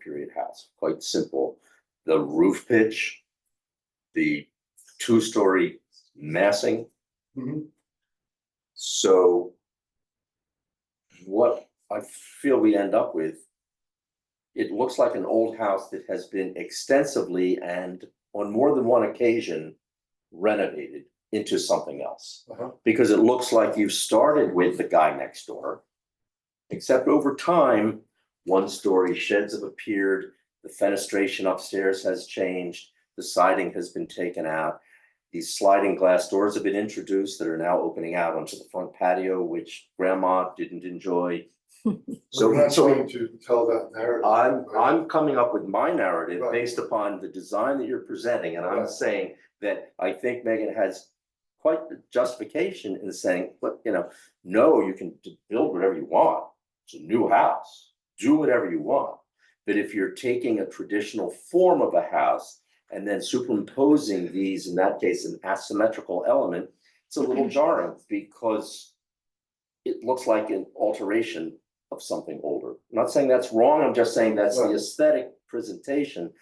State House, quite simple. The roof pitch, the two-story massing. Mhm. So what I feel we end up with, it looks like an old house that has been extensively and on more than one occasion renovated into something else. Uh-huh. Because it looks like you started with the guy next door. Except over time, one-story sheds have appeared, the fenestration upstairs has changed, the siding has been taken out. These sliding glass doors have been introduced that are now opening out onto the front patio, which grandma didn't enjoy. We're So, not so Uh, trying to tell that narrative. I'm, right? I'm coming up with my narrative Right. based upon the design that you're presenting, and I'm Right. saying that I think Megan has quite the justification in saying, look, you know, no, you can d- build whatever you want. It's a new house, do whatever you want. But if you're taking a traditional form of a house and then superimposing these, in that case, an asymmetrical element, it's a little jarring because it looks like an alteration of something older. I'm not saying that's wrong, I'm just saying that's the Right. aesthetic presentation.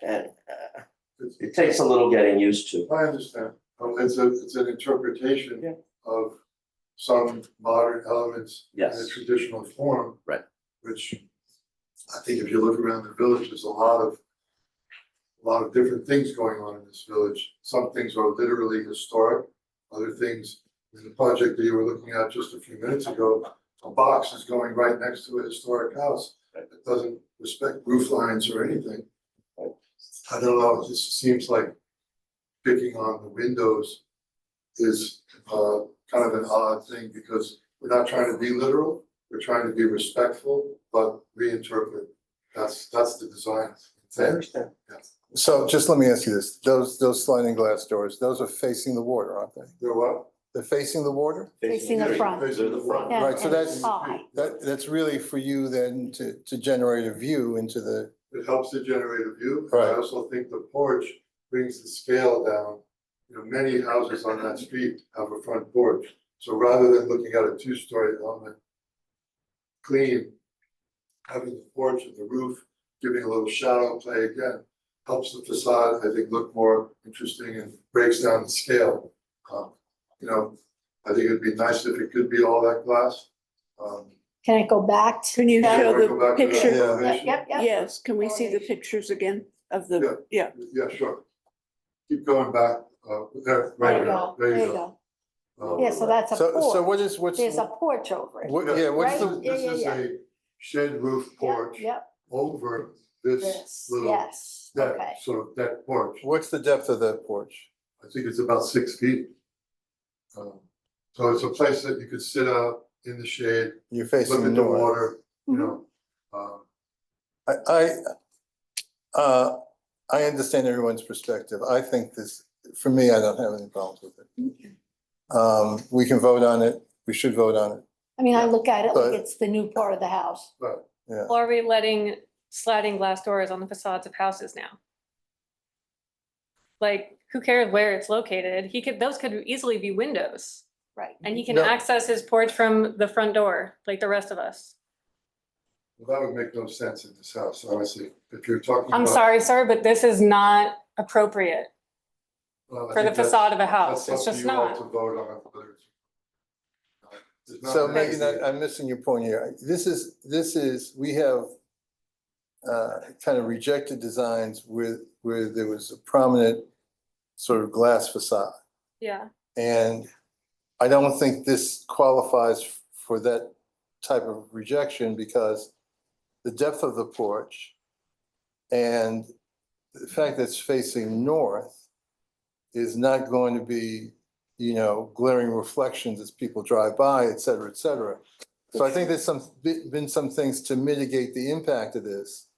And uh, It's- it takes a little getting used to. I understand. Um, It's a, it's an interpretation Yeah. of some modern elements in a Yes. traditional form. Right. Which I think if you look around the village, there's a lot of, a lot of different things going on in this village. Some things are literally historic, other things, in the project that you were looking at just a few minutes ago, a box is going right next to a historic house Right. that doesn't respect roof lines or anything. Right. I don't know, it just seems like picking on the windows is uh kind of an odd thing because we're not trying to be literal, we're trying to be respectful, but reinterpret. That's that's the design. understand. So just let me ask you this, those, those sliding glass doors, those are facing the water, aren't they? They're what? They're facing the water? Facing the front. Facing the front. Yeah, Right, so and that's- it's high. That, that's really for you then to, to generate a view into the, It helps to generate a view. Right. I also think the porch brings the scale down. You know, many houses on that street have a front porch, so rather than looking at a two-story element. Clean, having the porch and the roof, giving a little shadow play again, helps the facade, I think, look more interesting and breaks down the scale. Um, you know, I think it'd be nice if it could be all that glass. Um, Can I go back to? Can you that? show Go back the to that picture? Yeah. elevation. Yep, yep. Yes, can we see the pictures again of the, yeah, Yeah, sure. Keep going back, uh, there, right There there, you go, there you go. go. Um, Yeah, so that's a so, so porch. what is, what's, There's a what, porch over it. yeah, what's This is, Right? the, Yeah, this yeah, is yeah. a shed roof porch Yep, over this this, little yes, okay. deck, sort of deck porch. what's the depth of that porch? I think it's about six feet. Um, So it's a place that you could sit out in the shade, You're look facing the at the north. water, you Mhm. know. Um, I, I, uh, I understand everyone's perspective. I think this, for me, I don't have any problems with it. Um, we can vote on it. We should vote on it. I mean, I look at it like But- it's the new part of the house. Yeah. Or Are we letting sliding glass doors on the facades of houses now? Like, who cares where it's located? He could, those could easily be windows Right. and he can No. access his porch from the front door, like the rest of us. well, That would make no sense in this house, honestly, if you're talking about. I'm sorry, sir, but this is not appropriate uh, for the facade of a house. It's just To not. vote on it, whether it's- It's not So uh, an Megan, easy- I- I'm missing your point here. This is, this is, we have uh, kind of rejected designs with, where there was a prominent sort of glass facade. Yeah. And I don't think this qualifies for that type of rejection because the depth of the porch and the fact that it's facing north is not going to be, you know, glaring reflections as people drive by, et cetera, et cetera. So I think there's some, be- been some things to mitigate the impact of this.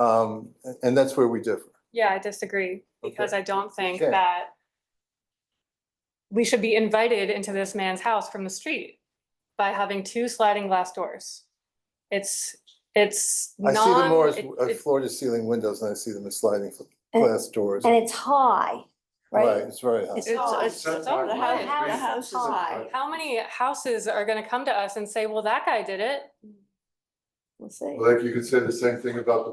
Um, a- and that's where we differ. Yeah, I disagree because I don't think Okay. that we should be invited into this man's house from the street by having two sliding glass doors. It's, it's I non. see them more as it- as it- floor to ceiling windows than I see them as sliding And- glass doors. And it's high, right? It's very high. It's It's- Oh, high. it's- it's all the right. house, the house is Hi. How many houses are gonna come to us and say, well, that guy did it? We'll see. Like you could say the same thing about the